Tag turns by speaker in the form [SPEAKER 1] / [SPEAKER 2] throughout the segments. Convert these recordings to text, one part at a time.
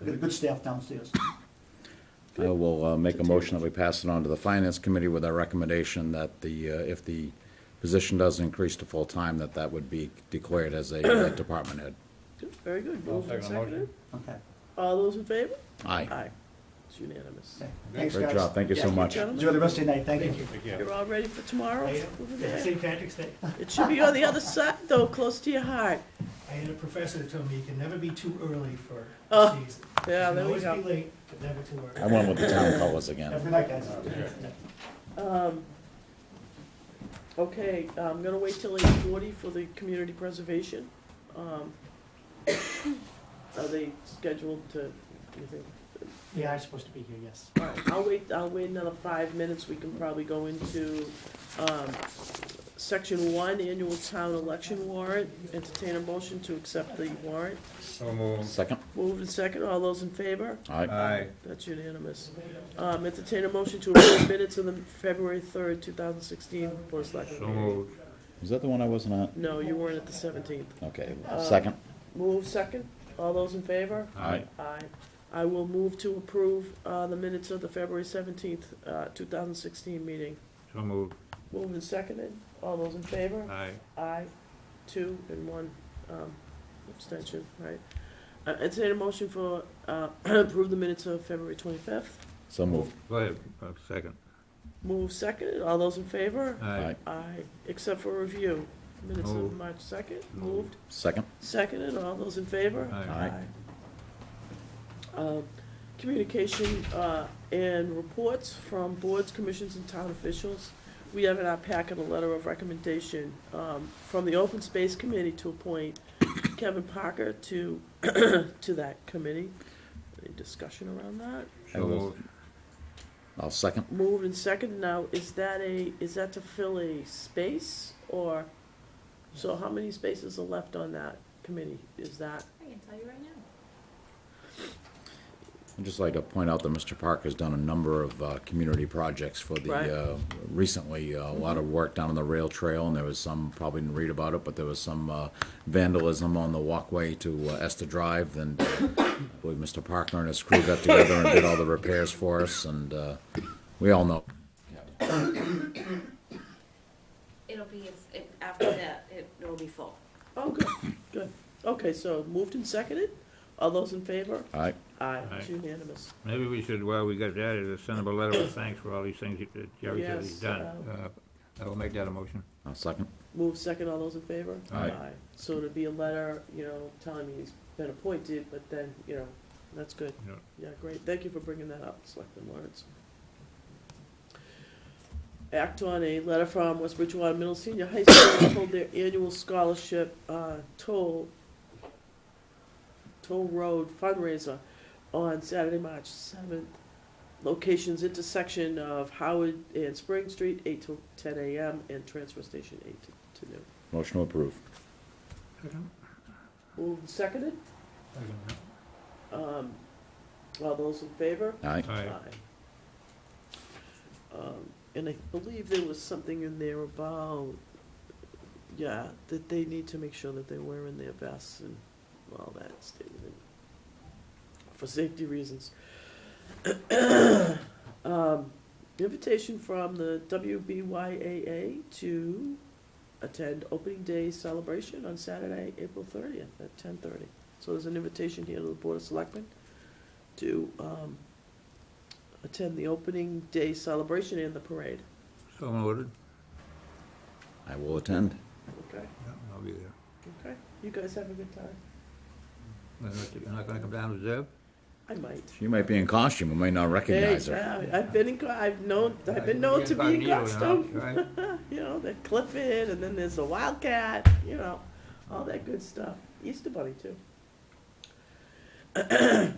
[SPEAKER 1] We've got a good staff downstairs.
[SPEAKER 2] I will uh, make a motion that we pass it on to the Finance Committee with our recommendation that the, uh, if the position does increase to full-time, that that would be declared as a uh, department head.
[SPEAKER 3] Very good. Moved and
[SPEAKER 4] second the motion.
[SPEAKER 3] seconded.
[SPEAKER 1] Okay,
[SPEAKER 3] All those in favor?
[SPEAKER 2] Aye.
[SPEAKER 3] Aye. It's unanimous.
[SPEAKER 1] okay. Thanks,
[SPEAKER 2] Great job,
[SPEAKER 1] guys.
[SPEAKER 2] thank you so
[SPEAKER 3] Yeah,
[SPEAKER 2] much.
[SPEAKER 3] gentlemen.
[SPEAKER 1] Enjoy the rest of your night, thank you.
[SPEAKER 4] Thank you.
[SPEAKER 3] You're all ready for tomorrow?
[SPEAKER 5] I am.
[SPEAKER 3] Over
[SPEAKER 5] Yeah,
[SPEAKER 3] there.
[SPEAKER 5] St. Patrick's Day.
[SPEAKER 3] It should be on the other side, though, close to your heart.
[SPEAKER 5] I had a professor that told me you can never be too early for
[SPEAKER 3] Oh,
[SPEAKER 5] the season.
[SPEAKER 3] Yeah, there we
[SPEAKER 5] You can always be
[SPEAKER 3] go.
[SPEAKER 5] late, but never too
[SPEAKER 2] I
[SPEAKER 5] early.
[SPEAKER 2] went with the town colors
[SPEAKER 1] Have a
[SPEAKER 2] again.
[SPEAKER 1] good night, guys.
[SPEAKER 3] Um, Okay, I'm gonna wait till eight forty for the community preservation. Um, Are they scheduled to, you think?
[SPEAKER 5] They are supposed to be here, yes.
[SPEAKER 3] All right, I'll wait, I'll wait another five minutes, we can probably go into, um, section one, annual town election warrant. Entertain a motion to accept the warrant.
[SPEAKER 4] So moved.
[SPEAKER 2] Second?
[SPEAKER 3] Moved and second, all those in favor?
[SPEAKER 2] Aye.
[SPEAKER 4] Aye.
[SPEAKER 3] That's unanimous. Um, entertain a motion to approve minutes of the February third, two thousand sixteen Board of Selectmen.
[SPEAKER 4] So
[SPEAKER 3] meeting.
[SPEAKER 4] moved.
[SPEAKER 2] Is that the one I wasn't at?
[SPEAKER 3] No, you weren't at the seventeenth.
[SPEAKER 2] Okay,
[SPEAKER 3] Uh,
[SPEAKER 2] second?
[SPEAKER 3] Move second, all those in favor?
[SPEAKER 2] Aye.
[SPEAKER 3] Aye. I will move to approve, uh, the minutes of the February seventeenth, uh, two thousand sixteen meeting.
[SPEAKER 4] So moved.
[SPEAKER 3] Moved and seconded, all those in favor?
[SPEAKER 4] Aye.
[SPEAKER 3] Aye, two and one, um, abstention, right? Uh, entertain a motion for, uh, approve the minutes of February twenty-fifth.
[SPEAKER 2] So moved.
[SPEAKER 4] Go ahead, uh, second.
[SPEAKER 3] Move seconded, all those in favor?
[SPEAKER 2] Aye.
[SPEAKER 3] Aye, except for review, minutes of
[SPEAKER 4] Moved.
[SPEAKER 3] March second,
[SPEAKER 4] Moved.
[SPEAKER 3] moved,
[SPEAKER 2] Second?
[SPEAKER 3] seconded, all those in favor?
[SPEAKER 4] Aye.
[SPEAKER 2] Aye.
[SPEAKER 3] Um, Communication uh, and reports from boards, commissions, and town officials. We have in our packet a letter of recommendation um, from the Open Space Committee to appoint Kevin Parker to, to that committee. Any discussion around that?
[SPEAKER 4] So moved.
[SPEAKER 2] I'll second.
[SPEAKER 3] Moved and seconded. Now, is that a, is that to fill a space or? So how many spaces are left on that committee? Is that?
[SPEAKER 6] I can tell you right now.
[SPEAKER 2] I'd just like to point out that Mr. Parker's done a number of uh, community projects for the,
[SPEAKER 3] Right.
[SPEAKER 2] uh, recently, uh, a lot of work down on the rail trail, and there was some, probably didn't read about it, but there was some uh, vandalism on the walkway to uh, Esther Drive, and uh, I believe Mr. Parker and his crew got together and did all the repairs for us, and uh, we all know.
[SPEAKER 6] It'll be, if- if- after that, it- it'll be full.
[SPEAKER 3] Oh, good, good. Okay, so moved and seconded. All those in favor?
[SPEAKER 2] All right,
[SPEAKER 3] Aye, it's
[SPEAKER 4] Aye.
[SPEAKER 3] unanimous.
[SPEAKER 4] Maybe we should, while we got that, is send him a letter of thanks for all these things that Jerry said he's
[SPEAKER 3] Yes, um,
[SPEAKER 4] done. Uh, I will make that a motion.
[SPEAKER 2] I'll second.
[SPEAKER 3] Moved second, all those in favor?
[SPEAKER 4] Aye.
[SPEAKER 3] So it'd be a letter, you know, telling me he's been appointed, but then, you know, that's good.
[SPEAKER 4] Yeah.
[SPEAKER 3] Yeah, great. Thank you for bringing that up, Selectman Lawrence. Act on a letter from West Bridgewater Middle Senior High School to hold their annual scholarship, uh, toll, toll road fundraiser on Saturday, March seventh. Locations intersection of Howard and Spring Street, eight to ten AM, and transfer station eight to- to noon.
[SPEAKER 2] Motion to approve.
[SPEAKER 4] Second?
[SPEAKER 3] Moved and seconded, um, all those in favor?
[SPEAKER 2] All right,
[SPEAKER 4] Aye.
[SPEAKER 3] Um, And I believe there was something in there about, yeah, that they need to make sure that they're wearing their vests and all that statement for safety reasons. Um, Invitation from the WBYAA to attend opening day celebration on Saturday, April thirtieth at ten thirty. So there's an invitation here to the Board of Selectmen to, um, attend the opening day celebration and the parade.
[SPEAKER 4] So ordered.
[SPEAKER 2] I will attend.
[SPEAKER 3] Okay,
[SPEAKER 4] Yeah, I'll be there.
[SPEAKER 3] okay. You guys have a good time.
[SPEAKER 4] You're not- You're not gonna come down to Zeb?
[SPEAKER 3] I might.
[SPEAKER 2] She might be in costume, we may not recognize
[SPEAKER 3] Hey,
[SPEAKER 2] her.
[SPEAKER 3] yeah, I've been in, Gla- I've known, I've been known to be in Gladstone. You know, the Clifford, and then there's the Wildcat, you know, all that good stuff. Easter Bunny too.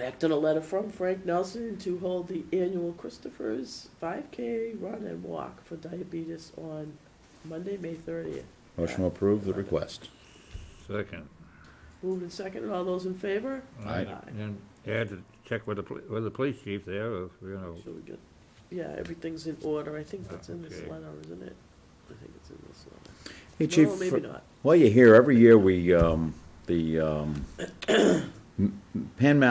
[SPEAKER 3] Act on a letter from Frank Nelson to hold the annual Christopher's 5K Run and Walk for Diabetes on Monday, May 30th.
[SPEAKER 2] Motion to approve the request.
[SPEAKER 4] Second.
[SPEAKER 3] Moved and seconded, all those in favor?
[SPEAKER 2] Aye.
[SPEAKER 4] And add to check with the, poli- with the police chief there, if, you know,
[SPEAKER 3] So we get, yeah, everything's in order, I think that's in this
[SPEAKER 4] Okay.
[SPEAKER 3] letter, isn't it? I think it's in this letter.
[SPEAKER 2] Hey, Chief.
[SPEAKER 3] No, maybe not.
[SPEAKER 2] Well, you hear, every year we, um, the, um, Pan Mountain